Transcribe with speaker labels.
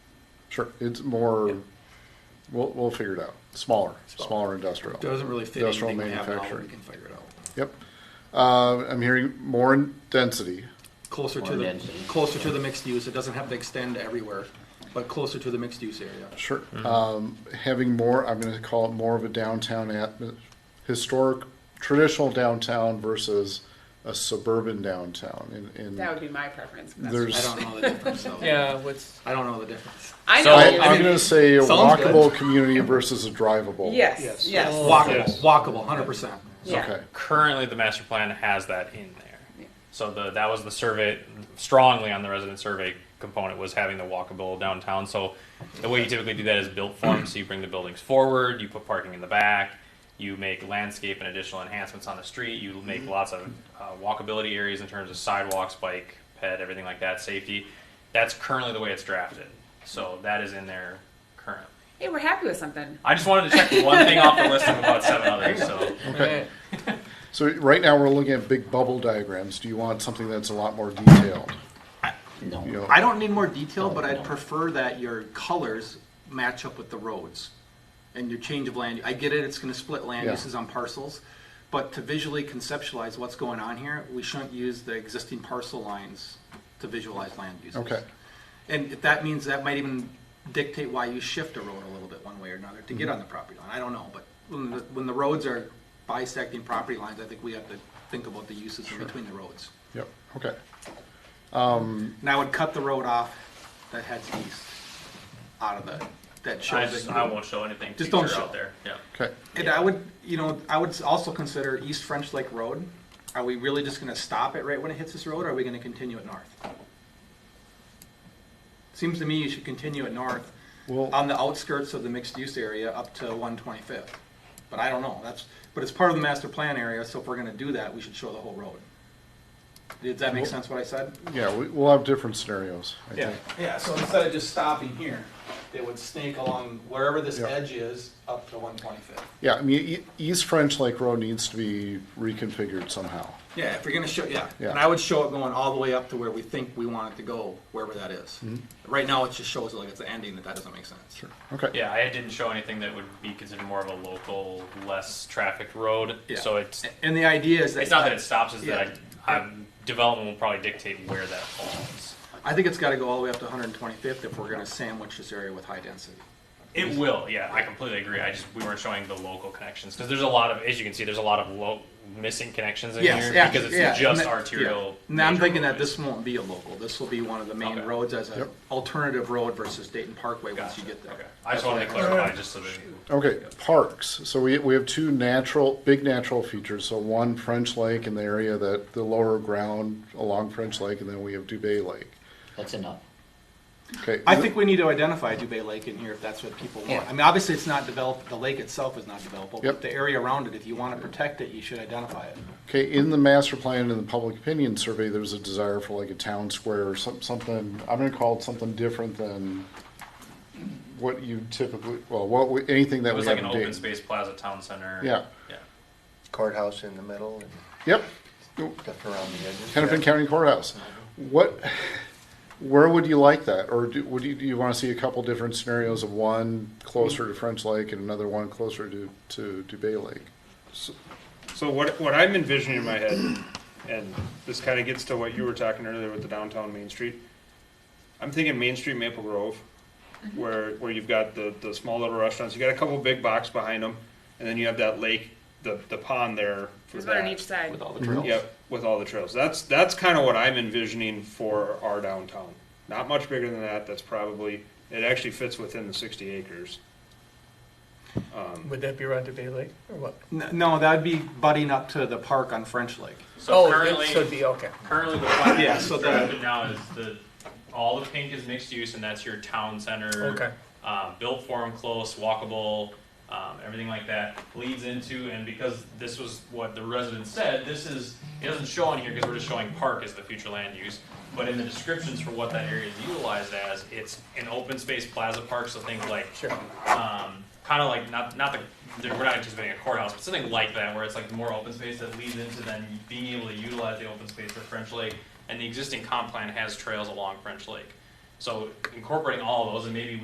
Speaker 1: Sure, it's more, we'll, we'll figure it out. Smaller, smaller industrial.
Speaker 2: Doesn't really fit
Speaker 1: Industrial
Speaker 2: anything we have now, but
Speaker 1: manufacturing.
Speaker 2: we can figure it out.
Speaker 1: Yep. Uh, I'm hearing more in density.
Speaker 2: Closer to
Speaker 3: Or
Speaker 2: the,
Speaker 3: density.
Speaker 2: closer to the mixed use, it doesn't have to extend everywhere, but closer to the mixed use area.
Speaker 1: Sure. Um, having more, I'm going to call it more of a downtown atmo- historic, traditional downtown versus a suburban downtown. In, in
Speaker 4: That would be my preference. but that's-
Speaker 1: There's-
Speaker 2: I don't know the difference though.
Speaker 5: Yeah, what's
Speaker 2: I don't know the difference.
Speaker 4: I
Speaker 5: So,
Speaker 4: know.
Speaker 1: I,
Speaker 4: you-
Speaker 1: I am going to say a
Speaker 2: sounds good.
Speaker 1: walkable community versus a drivable.
Speaker 4: yes. Yes.
Speaker 2: Walkable,
Speaker 5: Oh, Yes.
Speaker 2: walkable, hundred percent.
Speaker 4: Yeah.
Speaker 1: Okay.
Speaker 5: currently the master plan has that in there.
Speaker 4: Yeah.
Speaker 5: So the that was the survey strongly on the resident survey component was having the walkable downtown. So the way you typically do that is built form. so you bring the buildings forward, you put parking in the back, you make landscape and additional enhancements on the street, you make lots of uh, walkability areas in terms of sidewalks, bike, ped, everything like that, safety. That's currently the way it's drafted. So that is in there currently.
Speaker 4: Hey, we're happy with something.
Speaker 5: I just wanted to check one thing off the list of about seven others. So
Speaker 1: Okay. So right now we're looking at big bubble diagrams. Do you want something that's a lot more detailed?
Speaker 3: No.
Speaker 1: You know,
Speaker 2: I don't need more detail,
Speaker 1: Oh,
Speaker 2: but I'd prefer that your colors match up with the roads and your change of land. I get it, it's gonna split land
Speaker 1: Yeah.
Speaker 2: uses on parcels, but to visually conceptualize what's going on here, we shouldn't use the existing parcel lines to visualize land uses.
Speaker 1: Okay.
Speaker 2: And if that means that might even dictate why you shift a road a little bit one way or another to get
Speaker 1: Mm-hmm.
Speaker 2: on the property line, I don't know, but when the, when the roads are bisecting property lines, I think we have to think about the uses in between the roads.
Speaker 1: Yep. Okay.
Speaker 2: And I would cut the road off that heads east out of the, that
Speaker 5: I
Speaker 2: shows
Speaker 5: just
Speaker 2: it.
Speaker 5: I won't show anything.
Speaker 2: Just don't
Speaker 5: future
Speaker 2: show.
Speaker 5: out there. Yeah.
Speaker 1: Okay.
Speaker 2: And I would, you know, I would also consider East French Lake Road. Are we really just gonna stop it right when it hits this road, or are we gonna continue it north? Seems to me you should continue it north,
Speaker 1: Well-
Speaker 2: on the outskirts of the mixed-use area up to one twenty-fifth. But I don't know, that's, but it's part of the master plan area, so if we're gonna do that, we should show the whole road. Did that make sense what I said?
Speaker 1: Yeah, we, we'll have different scenarios. I
Speaker 2: Yeah,
Speaker 1: think.
Speaker 2: yeah, so instead of just stopping here, it would snake along wherever this
Speaker 1: Yeah.
Speaker 2: edge is up to one twenty-fifth.
Speaker 1: Yeah, I mean, E- East French Lake Road needs to be reconfigured somehow.
Speaker 2: Yeah, if you're gonna show, yeah,
Speaker 1: Yeah.
Speaker 2: and I would show it going all the way up to where we think we want it to go, wherever that is.
Speaker 1: Mm-hmm.
Speaker 2: Right now, it just shows like it's the ending, that that doesn't make sense. Sure.
Speaker 1: Okay.
Speaker 5: Yeah, I didn't show anything that would be considered more of a local, less trafficked road.
Speaker 2: Yeah.
Speaker 5: So it's
Speaker 2: And the idea is that.
Speaker 5: it's not that it stops, it's
Speaker 2: Yeah.
Speaker 5: that I, I'm, development will probably dictate where that falls.
Speaker 2: I think it's gotta go all the way up to one hundred and twenty-fifth if we're gonna sandwich this area with high density.
Speaker 5: It will. Yeah, I completely agree. I just we weren't showing the local connections because there's a lot of, as you can see, there's a lot of lo- missing connections in
Speaker 2: Yes,
Speaker 5: here
Speaker 2: yeah,
Speaker 5: because it's
Speaker 2: yeah, and
Speaker 5: just
Speaker 2: that-
Speaker 5: arterial.
Speaker 2: yeah. Now, I'm
Speaker 5: major
Speaker 2: thinking that
Speaker 5: roadways.
Speaker 2: this won't be a local, this will be one of the main
Speaker 5: Okay.
Speaker 2: roads as an
Speaker 1: Yep.
Speaker 2: alternative road versus Dayton Parkway once
Speaker 5: Gotcha.
Speaker 2: you get there.
Speaker 5: Okay. I just wanted to clarify just so that.
Speaker 1: Okay, parks. So we, we have two natural, big natural features. So one French Lake in the area that the lower ground along French Lake, and then we have Dubay Lake.
Speaker 3: That's enough.
Speaker 1: Okay.
Speaker 2: I think we need to identify Dubay Lake in here if that's what people want.
Speaker 3: Yeah.
Speaker 2: I mean, obviously, it's not developed, the lake itself is not developable,
Speaker 1: Yep.
Speaker 2: but the area around it, if you want to protect it, you should identify it.
Speaker 1: Okay, in the master plan and the public opinion survey, there's a desire for like a town square or some, something, I'm gonna call it something different than what you typically, well, what, we- anything that
Speaker 5: It
Speaker 1: we
Speaker 5: was
Speaker 1: have
Speaker 5: like an
Speaker 1: in
Speaker 5: open
Speaker 1: Dayton.
Speaker 5: space plaza town center.
Speaker 1: Yeah.
Speaker 5: Yeah.
Speaker 6: courthouse in the middle and
Speaker 1: Yep,
Speaker 6: stuff around the edges.
Speaker 1: Hennepin County Courthouse. What, where would you like that? Or do, would you, do you wanna see a couple different scenarios of one closer to French Lake and another one closer to, to, to Bay Lake?
Speaker 7: So what, what I'm envisioning in my head, and this kind of gets to what you were talking earlier with the downtown Main Street. I'm thinking Main Street Maple Grove,
Speaker 4: Mm-hmm.
Speaker 7: where, where you've got the, the small little restaurants, you got a couple big box behind them, and then you have that lake, the, the pond there. for
Speaker 4: There's one on
Speaker 7: that.
Speaker 4: each side.
Speaker 2: all the trails.
Speaker 7: Yep, with all the trails. That's, that's kind of what I'm envisioning for our downtown. Not much bigger than that, that's probably, it actually fits within the sixty acres.
Speaker 8: Would that be around Bay Lake or what?
Speaker 2: N- No, that'd be butting up to the park on French Lake.
Speaker 5: So
Speaker 8: Oh, it-
Speaker 5: currently,
Speaker 8: So it'd be, okay.
Speaker 5: Currently, the plan
Speaker 2: Yeah,
Speaker 5: that's
Speaker 2: so the-
Speaker 5: drafted now is the, all the pink is mixed use, and that's your town center.
Speaker 8: Okay.
Speaker 5: Um, built form, close, walkable, um, everything like that leads into, and because this was what the residents said, this is, it doesn't show on here because we're just showing park as the future land use. But in the descriptions for what that area is utilized as, it's an open space plaza park, so things like
Speaker 8: Sure.
Speaker 5: um, kind of like not not the there- we're not anticipating a courthouse, but something like that, where it's like more open space that leads into then being able to utilize the open space for French Lake, and the existing comp plan has trails along French Lake, so incorporating all of those and maybe.